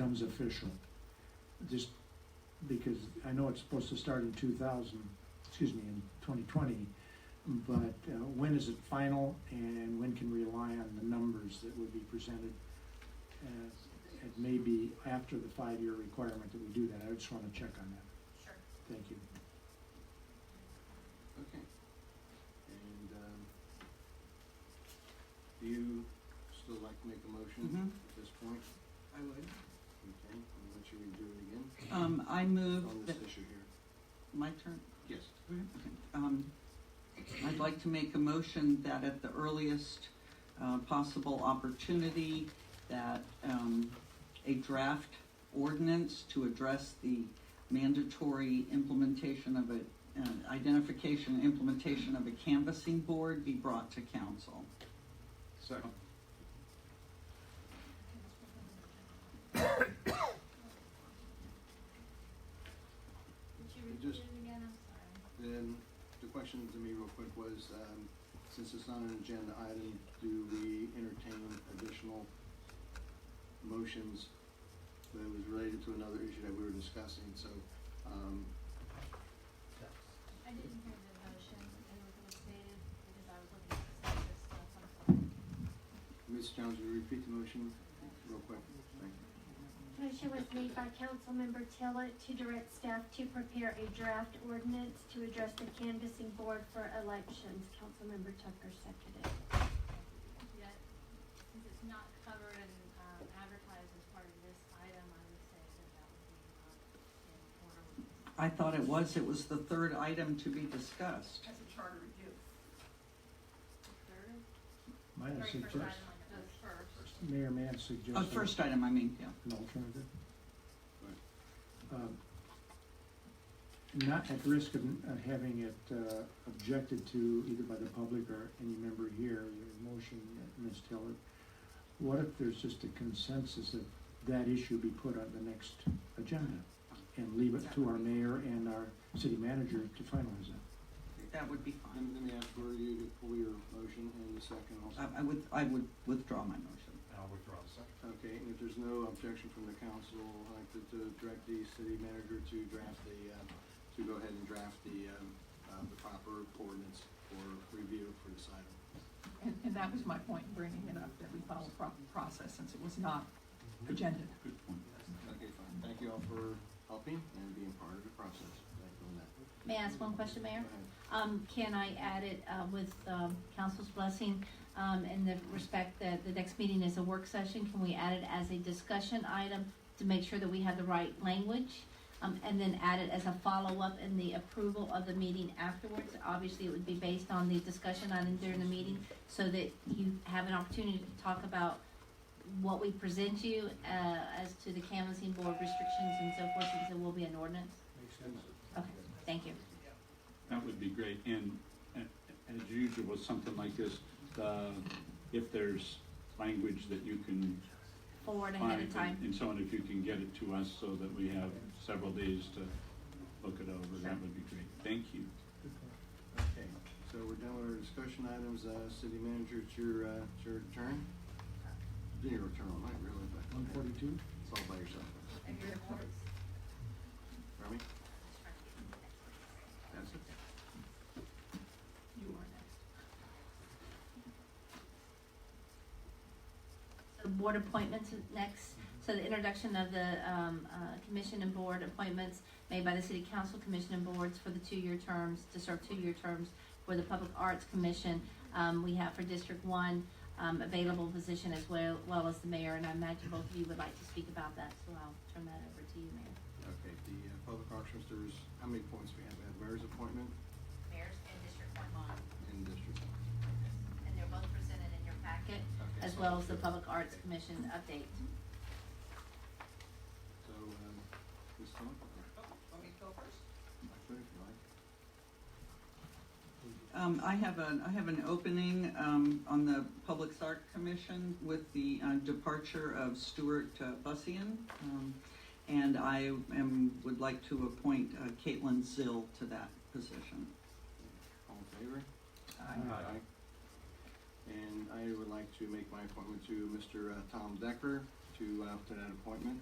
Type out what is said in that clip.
becomes official? Just because I know it's supposed to start in two thousand, excuse me, in twenty twenty, but uh, when is it final and when can we rely on the numbers that would be presented? as- It may be after the five-year requirement that we do that. I just want to check on that. Sure. Thank you. Okay. And, um, do you still like to make a motion Mhm. at this point? I would. Okay, I'll let you redo it again Um, I move on that, this issue here. my turn, Yes, Okay. um, I'd like to make a motion that at the earliest, uh, possible opportunity, that, um, a draft ordinance to address the mandatory implementation of a, uh, identification, and implementation of a canvassing board be brought to council. second. Did you It repeat just- it again? I'm sorry. Then the question to me real quick was, um, since it's not an agenda item, do we entertain additional motions that was related to another issue that we were discussing? So, um, I didn't hear the motion and it was stated because I was looking at the census stuff, I'm sorry. Ms. Jones, will you repeat the motion real quick? Thank you. Motion was made by Councilmember Tillot to direct staff to prepare a draft ordinance to address the canvassing board for elections. Councilmember Tucker seconded. Yet, since it's not covered and um, advertised as part of this item, I would say that that would be not in order. with this. I thought it was, it was the third item to be discussed. That's a charter review. The Third, Might I very first suggest, item on the list first. Mayor, may I suggest? Uh, first item, I mean, yeah. an alternative? Right. Um, Not at risk of, of having it uh, objected to either by the public or any member here, your motion, Ms. Tiller. What if there's just a consensus that that issue be put on the next agenda? And leave it to our mayor and our city manager to finalize it. That would be fine. And let me ask for you to pull your motion in a second also. I, I would, I would withdraw my motion. I'll withdraw the second. Okay, and if there's no objection from the council, I'd like to, to direct the city manager to draft the, um, to go ahead and draft the, um, uh, the proper ordinance for review for this item. And, and that was my point in bringing it up, that we follow proper process since it was not agenda. Good point. Okay, fine. Thank you all for helping and being part of the process. Thank you on that. May I ask one question, Go Mayor? ahead. Um, can I add it, uh, with, um, council's blessing, um, in the respect that the next meeting is a work session? Can we add it as a discussion item to make sure that we have the right language? Um, and then add it as a follow-up in the approval of the meeting afterwards? Obviously, it would be based on the discussion item during the meeting, so that you have an opportunity to talk about what we present you, uh, as to the canvassing board restrictions and so forth, since it will be an ordinance? Makes sense. Okay, thank you. That would be great, and, and as usual with something like this, uh, if there's language that you can Forward ahead find of time. and- and so on, if you can get it to us so that we have several days to look it over, Sure. that would be great, thank you. Okay, so we're done with our discussion items. Uh, city manager, it's your, uh, it's your turn. Your turn, all right, really, but One forty-two? it's all by yourself. And your boards. Remy? That's it. You are next. So board appointments is next, so the introduction of the, um, uh, commission and board appointments made by the city council, commission and boards for the two-year terms, to serve two-year terms for the Public Arts Commission. Um, we have for District One, um, available position as well, well as the mayor, and I imagine both of you would like to speak about that, so I'll turn that over to you, Mayor. Okay, the uh, public auctions, there's, how many points we have? We have mayor's appointment Mayor's in District One bond, and district. and they're both presented in your packet. Okay, As so- well as the Public Arts Commission update. So, um, this one? Oh, want me to go first? Actually, if you like. Um, I have an, I have an opening, um, on the Public Art Commission with the, uh, departure of Stuart uh, Bussian. Um, and I am, would like to appoint uh, Caitlin Zill to that position. All in favor? Aye. Aye. And I would like to make my appointment to Mr. uh, Tom Decker to, uh, to that appointment.